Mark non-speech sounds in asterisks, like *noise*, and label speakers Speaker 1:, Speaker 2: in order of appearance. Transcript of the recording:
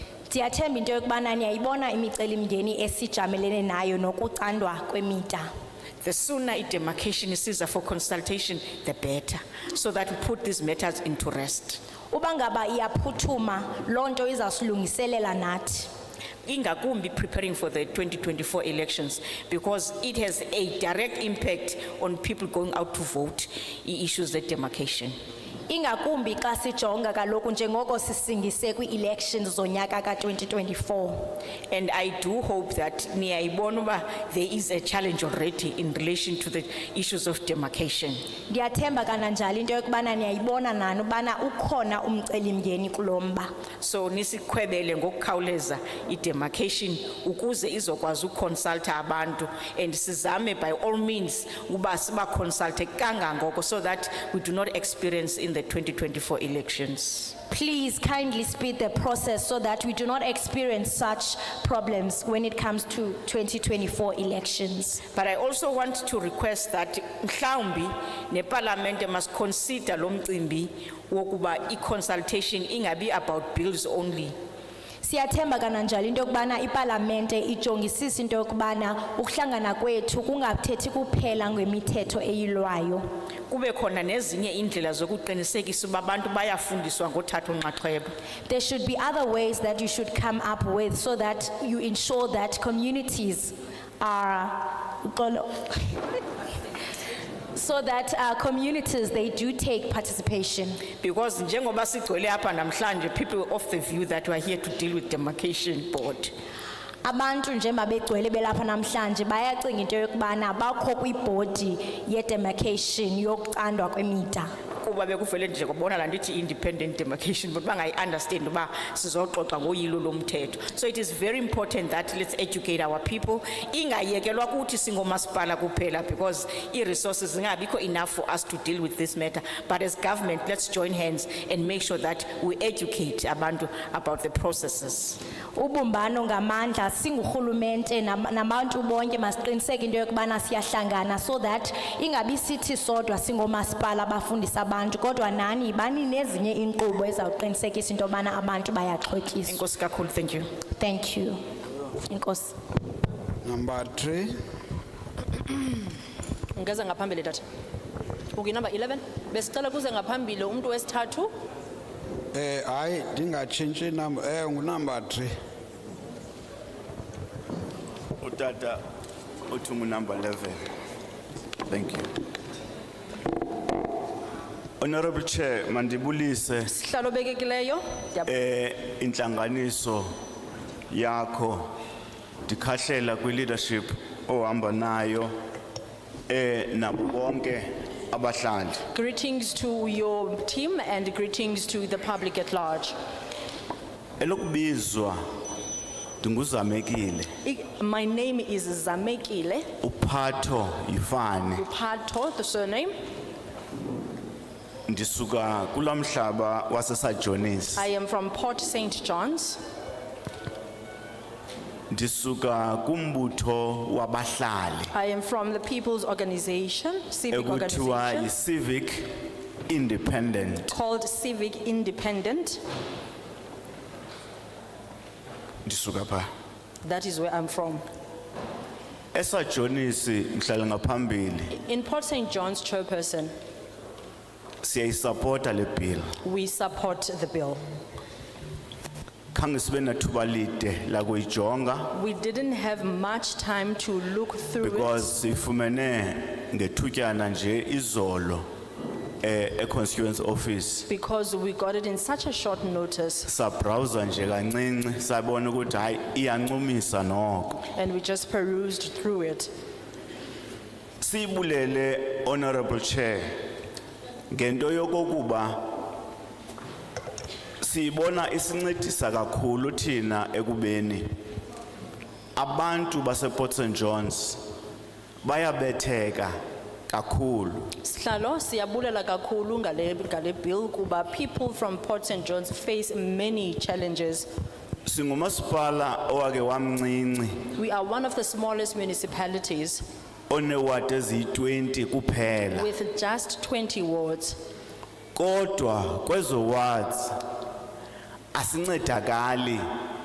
Speaker 1: ndiyathemba into yokubana niyayibona imicelimngeni esijamelene nayo nokucandwa kwemida
Speaker 2: The sooner a demarcation is easier for consultation, the better, so that we put these matters into rest.
Speaker 1: uba ngaba iyaphuthuma loo nto izawusilungiselela nathi
Speaker 2: Ingakumbi preparing for the 2024 elections because it has a direct impact on people going out to vote, i- issues that demarcation.
Speaker 1: ingakumbi xa sijonga kaloku njengoko sisingise kwii-elections zonyaka ka-2024
Speaker 2: And I do hope that Niaibonuba, there is a challenge already in relation to the issues of demarcation.
Speaker 1: ndiyathemba kananjalo into yokubana niyayibona nani ubana ukhona umcelimngeni kulo mba
Speaker 2: So nisikwebele ngokukhawuleza i-demarcation ukuze izokwazi ukonsulta abantu and sizame by all means uba siba consulte kangangoko so that we do not experience in the 2024 elections.
Speaker 1: please kindly speed the process so that we do not experience such problems when it comes to 2024 elections
Speaker 2: But I also want to request that mhlawumbi neparlamente must consider lo mcimbi wokuba i-consultation ingabi about bills only.
Speaker 1: siyathemba kananjalo into yokubana ipalamente ijongisise into yokubana ukuhlangana kwethu kungathethi kuphela ngemithetho eyilwayo
Speaker 2: Kube khona nezinye indlela zokuqinisekisa uba abantu bayafundiswa ngothatha unxaxheba.
Speaker 1: there should be other ways that you should come up with so that you ensure that communities are uxolo. *laughs* so that uh, communities they do take participation
Speaker 2: Because njengoba sigcwele apha namhlanje, people of the view that we are here to deal with demarcation board.
Speaker 1: abantu njengoba begcwele belapha namhlanje bayacinga into yokubana bakho kwibhodi ye-demarcation yokucandwa kwemida
Speaker 2: Kuba bekuvele nje kubona la ndithi independent demarcation, but bangayi-understand uba sizoxoxa ngoyilo lomthetho. So it is very important that let's educate our people. Ingayekelwa kuthi singomasipala kuphela because i-resources zingabikho enough for us to deal with this matter. But as government, let's join hands and make sure that we educate abantu about the processes.
Speaker 1: ubumbano ngamandla singurhulumente nam- nabantu bonke masiqiniseke into yokubana siyahlangana so that ingabi sithi sodwa singomasipala abafundisa abantu kodwa nani bani nezinye iinkqubo ezawuqinisekisa into yobana abantu bayaxhotyiswa
Speaker 2: Inkosi kakhulu, thank you.
Speaker 1: thank you inkosi
Speaker 3: Number three,
Speaker 4: Ngeza ngaphambili tata. Okay, number 11. Besicela kuze ngaphambili umuntu wesithathu.
Speaker 3: eh, hayi, ndingatshintshi number, eh, ngunumber three.
Speaker 5: Utata, utumu number eleven. Thank you. Honorable Chair, mandibulise
Speaker 4: Sihlalo bekekileyo. Ndiyabonga.
Speaker 5: eh intlanganiso yakho ndikhahlela kwi leadership ohamba nayo eh nabo bonke abahlali.
Speaker 4: Greetings to your team and greetings to the public at large.
Speaker 5: Elokubizwa ndinguzamekile
Speaker 4: I- My name is Zamekile
Speaker 5: uphatho yifane
Speaker 4: Uphato, the surname.
Speaker 5: ndisuka kulamhlaba wasesajonis
Speaker 4: I am from Port St. John's.
Speaker 5: ndisuka kumbutho wabahlali
Speaker 4: I am from the People's Organization, civic
Speaker 5: ekuthiwa
Speaker 4: organization
Speaker 5: yi-civic independent
Speaker 4: called Civic Independent.
Speaker 5: ndisuka phaa
Speaker 4: That is where I'm from.
Speaker 5: esajonisi mhlala ngaphambili
Speaker 4: In Port St. John's, chairperson,
Speaker 5: siyayisapota le bill
Speaker 4: we support the bill.
Speaker 5: khange sibe nathuba lide lakuyijonga
Speaker 4: We didn't have much time to look through it
Speaker 5: because siyifumene ngethutyana nje izolo eh e-constituency office
Speaker 4: because we got it in such a short notice
Speaker 5: sabrowser nje kancinci sabona ukuthi hayi iyancumisa noko
Speaker 4: and we just perused through it.
Speaker 5: siyibulele honorable chair ngento yokokuba siyibona isincedisa kakhulu thina ekubeni abantu baseport st johns bayabetheka kakhulu
Speaker 4: Sihlalo siyabulela kakhulu ngale ngale bill kuba people from Port St John's face many challenges.
Speaker 5: singumasipala owake wamncinci
Speaker 4: We are one of the smallest municipalities
Speaker 5: onewadi eziyi-20 kuphela
Speaker 4: with just 20 wards.
Speaker 5: kodwa kwezo wards asincedakali